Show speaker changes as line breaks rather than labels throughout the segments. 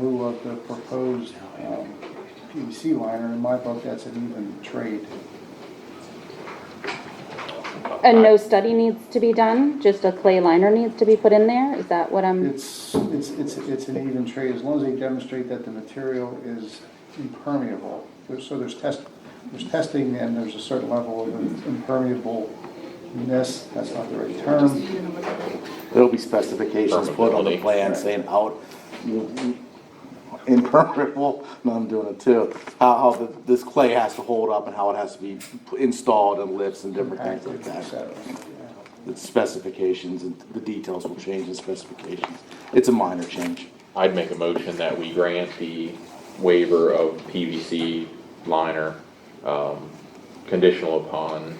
lieu of the proposed um, PVC liner, in my book, that's an even trade.
And no study needs to be done, just a clay liner needs to be put in there? Is that what I'm,
It's, it's, it's, it's an even trade, as long as they demonstrate that the material is impermeable. There's- So there's test, there's testing and there's a certain level of impermeableness, that's not the right term.
There'll be specifications put on the plan saying out impermeable, no, I'm doing it too. How, how the- this clay has to hold up and how it has to be installed and lifts and different things like
active, et
that.
cetera.
The specifications and the details will change in specifications. It's a minor change.
I'd make a motion that we grant the waiver of PVC liner, um, conditional upon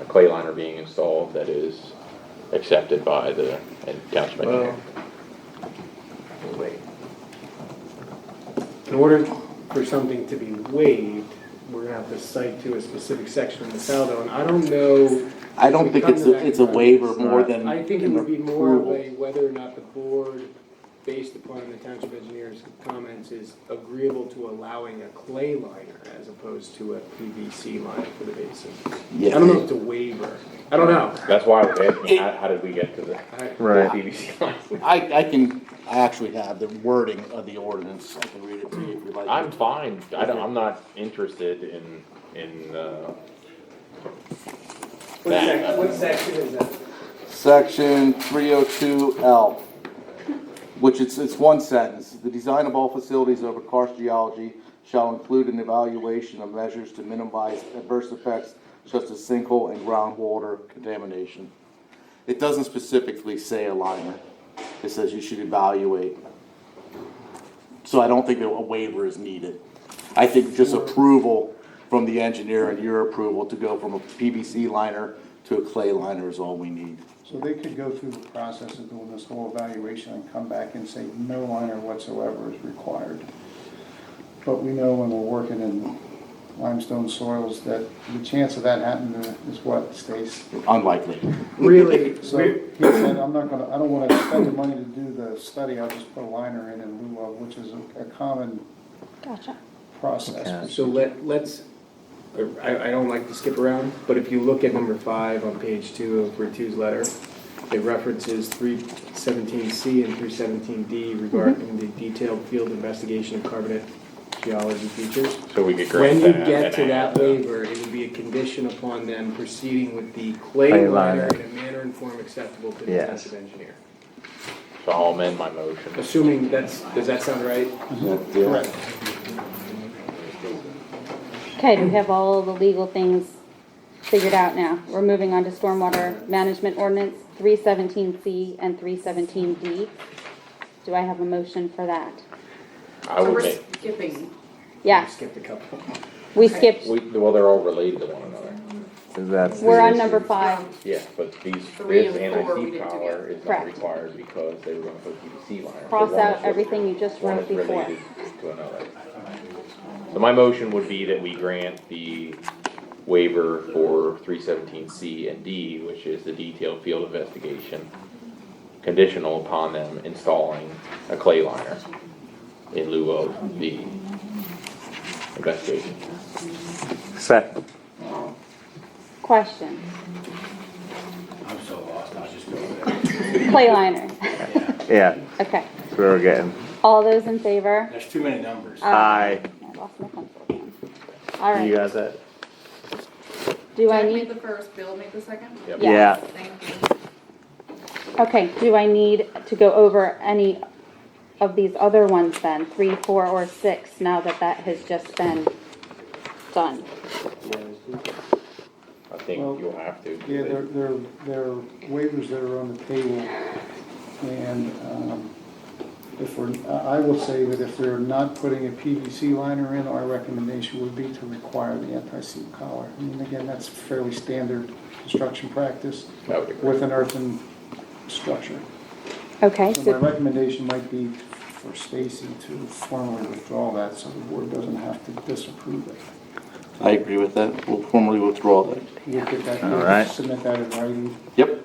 a clay liner being installed that is accepted by the township engineer.
Wait. In order for something to be waived, we're gonna have to cite to a specific section in the Saldo, and I don't know.
I don't think it's, a- it's a waiver more than.
I think it would be more of
approval.
a whether or not the board, based upon the township engineer's comments, is agreeable to allowing a clay liner as opposed to a PVC liner for the basin. I
Yeah.
don't know if it's a waiver, I don't know.
That's why I was asking, how, how did we get to the
I-
PVC liner?
I, I can, I actually have the wording of the ordinance, I can read it to you if you'd like.
I'm fine, I don't, I'm not interested in, in, uh,
What sec- what section is that?
Section three oh two L, which it's, it's one sentence. The design of all facilities over karst geology shall include an evaluation of measures to minimize adverse effects such as sinkhole and groundwater contamination. It doesn't specifically say a liner. It says you should evaluate. So I don't think that a waiver is needed. I think just approval from the engineer and your approval to go from a PVC liner to a clay liner is all we need.
So they could go through the process of doing this whole evaluation and come back and say no liner whatsoever is required. But we know when we're working in limestone soils that the chance of that happening is what, Stace?
Unlikely.
Really,
So
we-
he said, I'm not gonna, I don't wanna spend the money to do the study, I'll just put a liner in in lieu of, which is a a common
gotcha.
process.
So let, let's, I, I don't like to skip around, but if you look at number five on page two of Ritu's letter, it references three seventeen C and three seventeen D regarding the detailed field investigation of carbonate geology features.
so we could grant
When you
that.
get
and
to
add
that waiver, it would be a condition upon them proceeding with the clay
Clay
liner
liner.
in a manner and form acceptable to the
Yes.
township engineer.
So I'll amend my motion.
Assuming that's, does that sound right?
Correct.
Okay, do we have all the legal things figured out now? We're moving on to stormwater management ordinance, three seventeen C and three seventeen D. Do I have a motion for that?
I
So
would
we're
make,
skipping.
Yeah,
Skipped a couple.
we skipped,
we, well, they're all related to one another.
That's the
we're on
issue.
number five.
Yeah, but these,
Three
this
and four we
anti-seep
did
collar is not
Correct.
required because they were gonna put PVC liner. So
Cross
one is
out
what-
everything you just
one
wrote
is
before.
related To another. So my motion would be that we grant the waiver for three seventeen C and D, which is the detailed field investigation, conditional upon them installing a clay liner in lieu of the investigation.
Second.
Question? I'm so lost, I was just going Clay liner,
Yeah,
okay.
that's where we're getting.
All those in favor?
There's too many numbers.
Aye.
I lost my pencil again. All
You
right,
got that?
do I
Jack made
need,
the first, Bill made the second?
Yep.
Yeah.
Yeah.
Thank you.
okay, do I need to go over any of these other ones then, three, four, or six, now that that has just been done?
I think you'll have to.
Yeah, there, there, there are waivers that are on the table, and, um, if we're, I I will say that if they're not putting a PVC liner in, our recommendation would be to require the anti-seep collar. I mean, again, that's fairly standard construction practice
I would agree.
with an earthen structure.
Okay,
So my
so,
recommendation might be for Stacy to formally withdraw that, so the board doesn't have to disapprove it.
I agree with that. We'll formally withdraw that.
You'll get that,
All right.
submit that in writing.
Yep.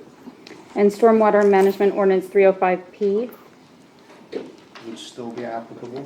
and stormwater management ordinance three oh five P,
which still be applicable.